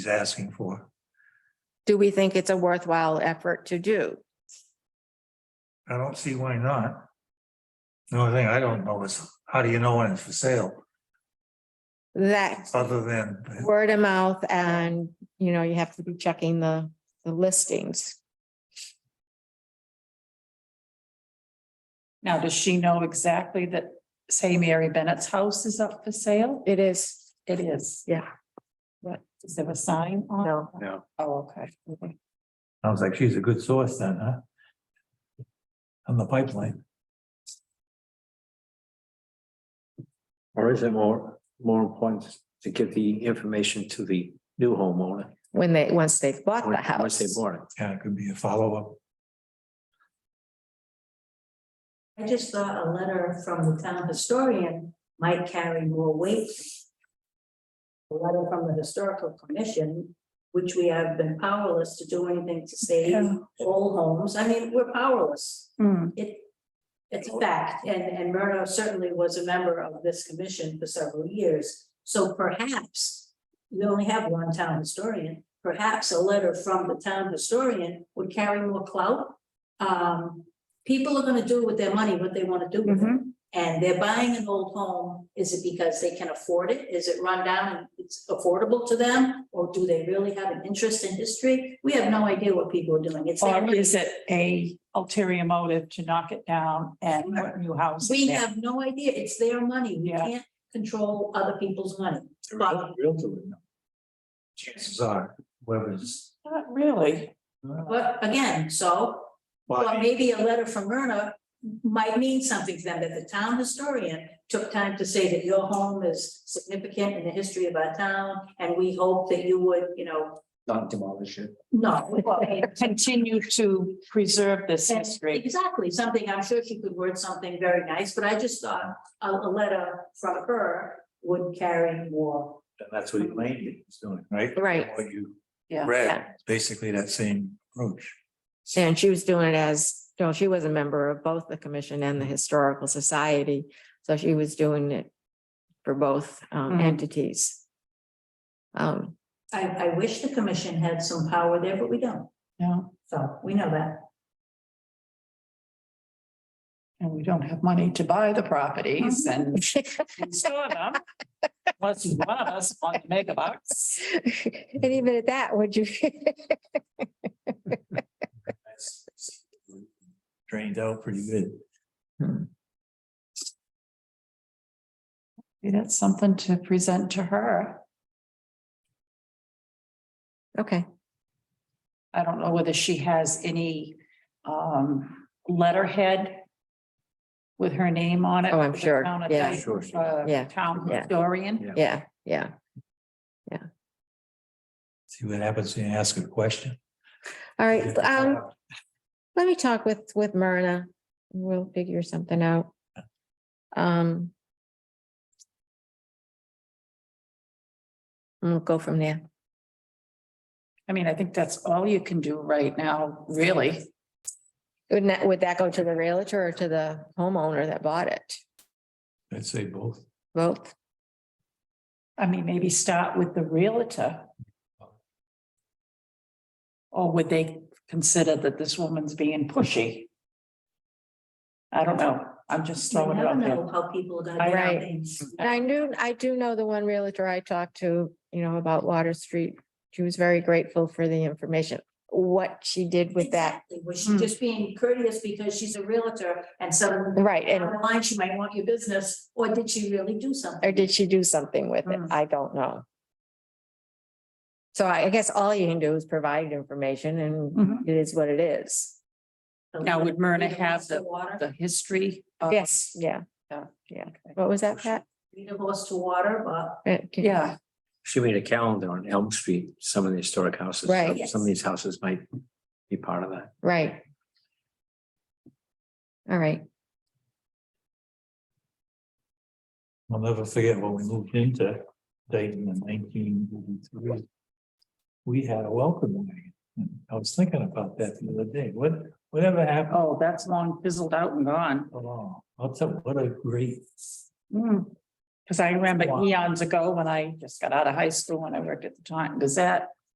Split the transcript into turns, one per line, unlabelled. he's asking for.
Do we think it's a worthwhile effort to do?
I don't see why not. The only thing I don't know is, how do you know when it's for sale,
That
other than,
word of mouth and, you know, you have to be checking the, the listings.
Now, does she know exactly that, say, Mary Bennett's house is up for sale?
It is,
It is.
yeah,
What, is there a sign on?
no.
Oh, okay.
sounds like she's a good source then, huh? On the pipeline.
Or is it more, more important to give the information to the new homeowner?
When they, once they've bought the
once- once
house.
they bought it?
Yeah, it could be a follow-up.
I just thought a letter from the town historian might carry more weight. A letter from the historical commission, which we have been powerless to do anything to save
Yeah.
old homes. I mean, we're powerless.
Hmm,
It, it's a fact, and, and Murdo certainly was a member of this commission for several years. So perhaps, we only have one town historian, perhaps a letter from the town historian would carry more clout. Um, people are gonna do with their money what they wanna do with it. And they're buying an old home, is it because they can afford it? Is it run down and it's affordable to them? Or do they really have an interest in history? We have no idea what people are doing. It's.
Or is it a ulterior motive to knock it down and put new house?
We
there?
have no idea. It's their money. We
Yeah.
can't control other people's money. But
Realtor would know.
Chances are, whoever's.
Not really.
but again, so, well, maybe a letter from Myrna might mean something to them, that the town historian took time to say that your home is significant in the history of our town, and we hope that you would, you know,
Not demolish it.
no. well, I mean,
Continue to preserve this
And
history.
Exactly, something, I'm sure she could word something very nice, but I just thought a, a letter from her would carry more.
And that's what Elaine was doing.
Right?
Right.
What you
Yeah.
read, basically that same approach.
And she was doing it as, you know, she was a member of both the commission and the historical society. So she was doing it for both um,
Mhm.
entities. Um,
I, I wish the commission had some power there, but we don't,
No,
so we know that.
and we don't have money to buy the properties
Mhm.
and store them. Unless one of us wants to make a box.
And even at that, would you?
Drained out pretty good.
Maybe That's something to present to her.
Okay,
I don't know whether she has any um letterhead. With her name on it.
Oh, I'm
for the
sure.
town
Yeah.
attorney,
Sure, sure.
uh,
Yeah.
Town
Yeah.
historian.
yeah, yeah.
See what happens when you ask a question.
All right, um, Let me talk with, with Myrna. and We'll figure something out. Um. and We'll go from there.
I mean, I think that's all you can do right now, really.
Would that, would that go to the realtor or to the homeowner that bought it?
I'd say both.
Both?
I mean, maybe start with the realtor. Or would they consider that this woman's being pushy? I don't know. I'm just
You
throwing it
never
out there.
know how people are gonna. do
Right.
things.
And I knew, I do know the one realtor I talked to, you know, about Water Street. She was very grateful for the information. What she did with that,
Exactly. Was she
Hmm.
just being courteous because she's a realtor and suddenly
right, Mm, and,
down the line she might want your business, or did she really do something?
or did she do something with it?
Mm.
I don't know. So I I guess all you can do is provide information and
Mhm.
it is what it is.
Now, would Myrna
Lead a
have
horse to Water,
The history. of-
Yes, yeah.
Yeah.
Yeah.
Okay.
What was that, Pat?
lead a horse to water, but
Uh, can-
Yeah.
She made a calendar on Elm Street, some of the historic houses. so
Right.
Some of these houses might be part of that.
Right. All right.
I'll never forget when we moved into Dayton in nineteen eighty-three. We had a welcome wagon. And I was thinking about that the other day. What, whatever happened?
Oh, that's long fizzled out and gone.
Oh, I'll tell, what a great
Hmm. Cause I remember eons ago when I just got out of high school and I worked at the Taunton Gazette.